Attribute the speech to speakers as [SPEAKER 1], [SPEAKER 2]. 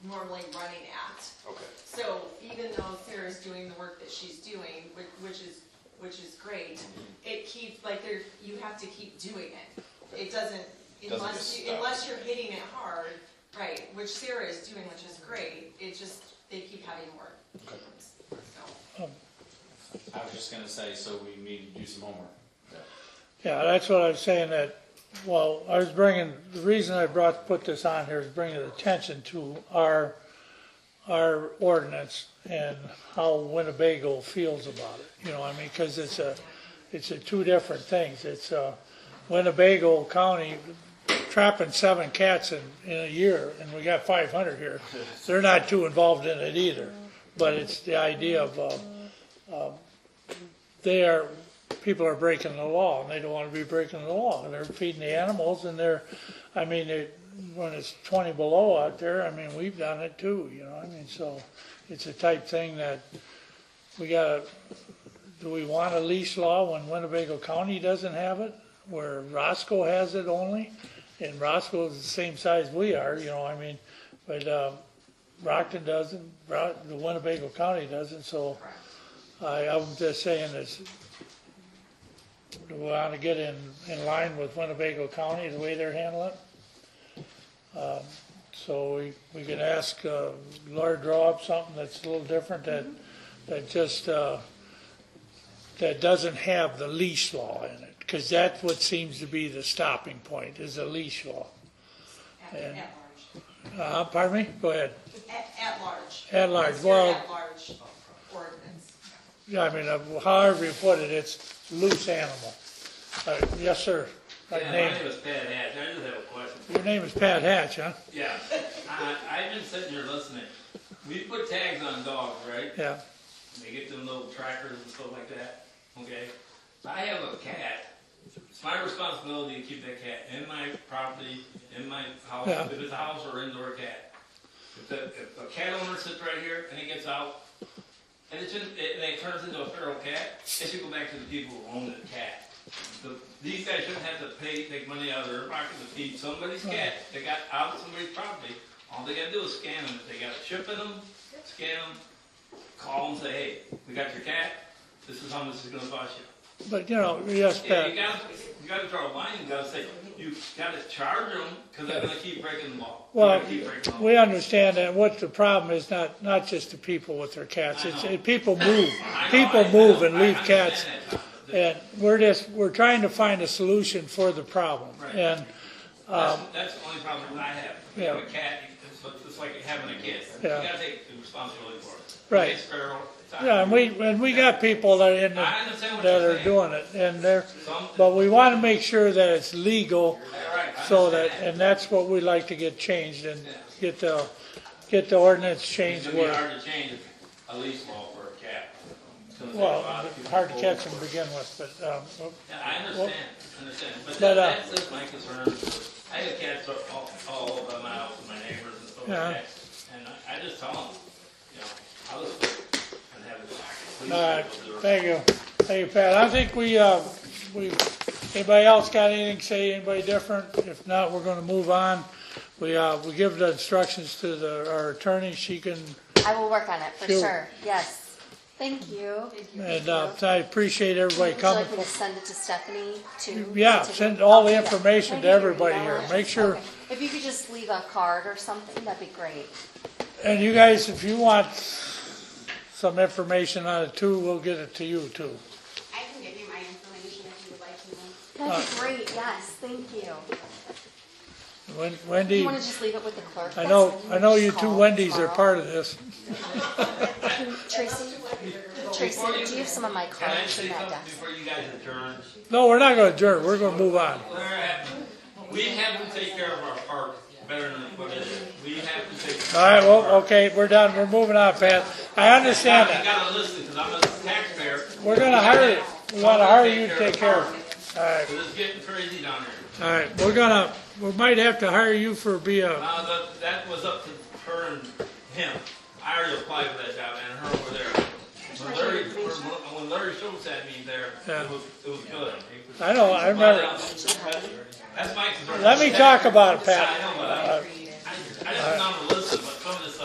[SPEAKER 1] normally running at.
[SPEAKER 2] Okay.
[SPEAKER 1] So even though Sarah's doing the work that she's doing, which, which is, which is great, it keeps, like, there, you have to keep doing it. It doesn't,
[SPEAKER 2] get
[SPEAKER 1] unless, you
[SPEAKER 2] stuck.
[SPEAKER 1] unless you're hitting it hard, right, which Sarah is doing, which is great, it just, they keep having more. So.
[SPEAKER 3] I was just gonna say, so we need to do some homework.
[SPEAKER 4] Yeah, that's what I was saying that, well, I was bringing, the reason I brought, put this on here is bringing attention to our, our ordinance and how Winnebago feels about it. You know, I mean, because it's a, it's a two different things. It's, uh, Winnebago County trapping seven cats in, in a year and we got five hundred here. They're not too involved in it either, but it's the idea of, uh, they are, people are breaking the law, and they don't want to be breaking the law, and they're feeding the animals, and they're, I mean, it, when it's twenty below out there, I mean, we've done it too, you know, I mean, so, it's a type thing that we gotta, do we want a leash law when Winnebago County doesn't have it? Where Roscoe has it only, and Roscoe's the same size we are, you know, I mean, but, uh, Rockton doesn't, Ro- the Winnebago County doesn't, so. I, I'm just saying this, do we want to get in, in line with Winnebago County, the way they're handling it? Um, So we, we could ask uh, Laura to draw up something that's a little different, that, that just, uh, that doesn't have the leash law in it, because that's what seems to be the stopping point, is the leash law.
[SPEAKER 1] At, at large.
[SPEAKER 4] Uh, Pardon me? Go ahead.
[SPEAKER 1] At, at large.
[SPEAKER 4] At large,
[SPEAKER 1] It's
[SPEAKER 4] well-
[SPEAKER 1] their At large ordinance.
[SPEAKER 4] Yeah, I mean, uh, however you put it, it's loose animal. Uh, Yes, sir. My
[SPEAKER 5] Yeah,
[SPEAKER 4] name-
[SPEAKER 5] my name is Pat Hatch. I just have a question.
[SPEAKER 4] Your name is Pat Hatch, huh?
[SPEAKER 5] Yeah, I, I've been sitting here listening. We put tags on dogs, right?
[SPEAKER 4] Yeah,
[SPEAKER 5] They get them little trackers and stuff like that, okay? I have a cat. It's my responsibility to keep that cat in my property, in my house,
[SPEAKER 4] Yeah.
[SPEAKER 5] if it's a house or indoor cat. If, the, if a cat owner sits right here and it gets out, and it just, it, and it turns into a feral cat, it should go back to the people who own the cat. The, these guys shouldn't have to pay, take money out of their pocket to feed somebody's cat that got out of somebody's property. All they gotta do is scan them. If they got a chip in them, scan them, call and say, hey, we got your cat, this is how much it's gonna cost you.
[SPEAKER 4] but you know, yes,
[SPEAKER 5] Yeah,
[SPEAKER 4] Pat,
[SPEAKER 5] you gotta, you gotta draw a line, you gotta say, you gotta charge them, cause they're gonna keep breaking the law. They're
[SPEAKER 4] Well,
[SPEAKER 5] gonna keep breaking the law.
[SPEAKER 4] we understand that what the problem is, not, not just the people with their cats,
[SPEAKER 5] I
[SPEAKER 4] it's,
[SPEAKER 5] know.
[SPEAKER 4] it- people move.
[SPEAKER 5] I know,
[SPEAKER 4] People
[SPEAKER 5] I-
[SPEAKER 4] move and
[SPEAKER 5] I
[SPEAKER 4] leave
[SPEAKER 5] understand
[SPEAKER 4] cats.
[SPEAKER 5] that, but
[SPEAKER 4] And we're just, we're trying to find a solution for the problem.
[SPEAKER 5] Right.
[SPEAKER 4] And,
[SPEAKER 5] That's, that's the only problem I have. You
[SPEAKER 4] um, yeah.
[SPEAKER 5] have a cat, it's, it's like having a kid. You
[SPEAKER 4] Yeah.
[SPEAKER 5] gotta take the responsibility for it.
[SPEAKER 4] Right.
[SPEAKER 5] It's feral, it's out
[SPEAKER 4] yeah, and we,
[SPEAKER 5] here.
[SPEAKER 4] and we got people that are in the,
[SPEAKER 5] I understand what
[SPEAKER 4] that
[SPEAKER 5] you're
[SPEAKER 4] are
[SPEAKER 5] saying.
[SPEAKER 4] doing it, and they're,
[SPEAKER 5] Some-
[SPEAKER 4] but we wanna make sure that it's legal.
[SPEAKER 5] All right, I
[SPEAKER 4] So that,
[SPEAKER 5] understand
[SPEAKER 4] and that's what we like to get changed and get the, get the ordinance
[SPEAKER 5] It's
[SPEAKER 4] changed
[SPEAKER 5] gonna be
[SPEAKER 4] where,
[SPEAKER 5] hard to change a lease law for a cat. It's gonna take a
[SPEAKER 4] well, uh,
[SPEAKER 5] lot of people
[SPEAKER 4] hard to
[SPEAKER 5] over.
[SPEAKER 4] catch them to begin with, but, um,
[SPEAKER 5] Yeah, I understand, I understand, but
[SPEAKER 4] But,
[SPEAKER 5] that,
[SPEAKER 4] uh,
[SPEAKER 5] that's just my concern. I have cats all, all over my house and my neighbors and stuff like
[SPEAKER 4] Yeah.
[SPEAKER 5] that. And I, I just tell them, you know, I'll just, and have it.
[SPEAKER 4] all right, thank you. Thank you, Pat. I think we, uh, we, anybody else got anything to say, anybody different? If not, we're gonna move on. We, uh, we give the instructions to the, our attorney, she can,
[SPEAKER 6] I will work on it for
[SPEAKER 4] Sure.
[SPEAKER 6] sure. Yes. Thank you.
[SPEAKER 4] and, uh, I appreciate everybody
[SPEAKER 6] Would you
[SPEAKER 4] coming.
[SPEAKER 6] like me to send it to Stephanie too?
[SPEAKER 4] Yeah,
[SPEAKER 6] To-
[SPEAKER 4] send all the
[SPEAKER 6] Okay.
[SPEAKER 4] information to everybody here. Make sure
[SPEAKER 6] Okay. If you could just leave a card or something, that'd be great.
[SPEAKER 4] And you guys, if you want some information on it too, we'll get it to you too.
[SPEAKER 7] I can give you my information if you would like to know.
[SPEAKER 6] That'd
[SPEAKER 4] Uh,
[SPEAKER 6] be great, yes, thank you.
[SPEAKER 4] Wen-
[SPEAKER 6] Do
[SPEAKER 4] Wendy,
[SPEAKER 6] you wanna just leave it with the clerk?
[SPEAKER 4] I
[SPEAKER 6] That's
[SPEAKER 4] know,
[SPEAKER 6] fine.
[SPEAKER 4] I know
[SPEAKER 6] Just
[SPEAKER 4] you two
[SPEAKER 6] call
[SPEAKER 4] Wendy's are
[SPEAKER 6] tomorrow.
[SPEAKER 4] part of this.
[SPEAKER 6] Tracy, Tracy, do you have some of my
[SPEAKER 5] Can I
[SPEAKER 6] cards
[SPEAKER 5] say
[SPEAKER 6] in that
[SPEAKER 5] something
[SPEAKER 6] desk?
[SPEAKER 5] before you guys adjourn?
[SPEAKER 4] No, we're not gonna adjourn, we're gonna move on.
[SPEAKER 5] All right. We have to take care of our park better than what it is. We have to take.
[SPEAKER 4] All right, well, okay, we're done, we're moving on, Pat. I understand
[SPEAKER 5] You
[SPEAKER 4] that.
[SPEAKER 5] gotta listen, cause I'm a taxpayer,
[SPEAKER 4] We're gonna hire you, we wanna hire you to take care of it.
[SPEAKER 5] cause it's getting crazy down here.
[SPEAKER 4] All right, we're gonna, we might have to hire you for be a,
[SPEAKER 5] Uh, that, that was up to her and him. I already applied for that job and her over there. When Larry, when Larry Schultz had me there,
[SPEAKER 4] Yeah.
[SPEAKER 5] it was, it was good. He was-
[SPEAKER 4] I know, I remember.
[SPEAKER 5] That's my concern.
[SPEAKER 4] Let me talk about it, Pat.
[SPEAKER 5] I know,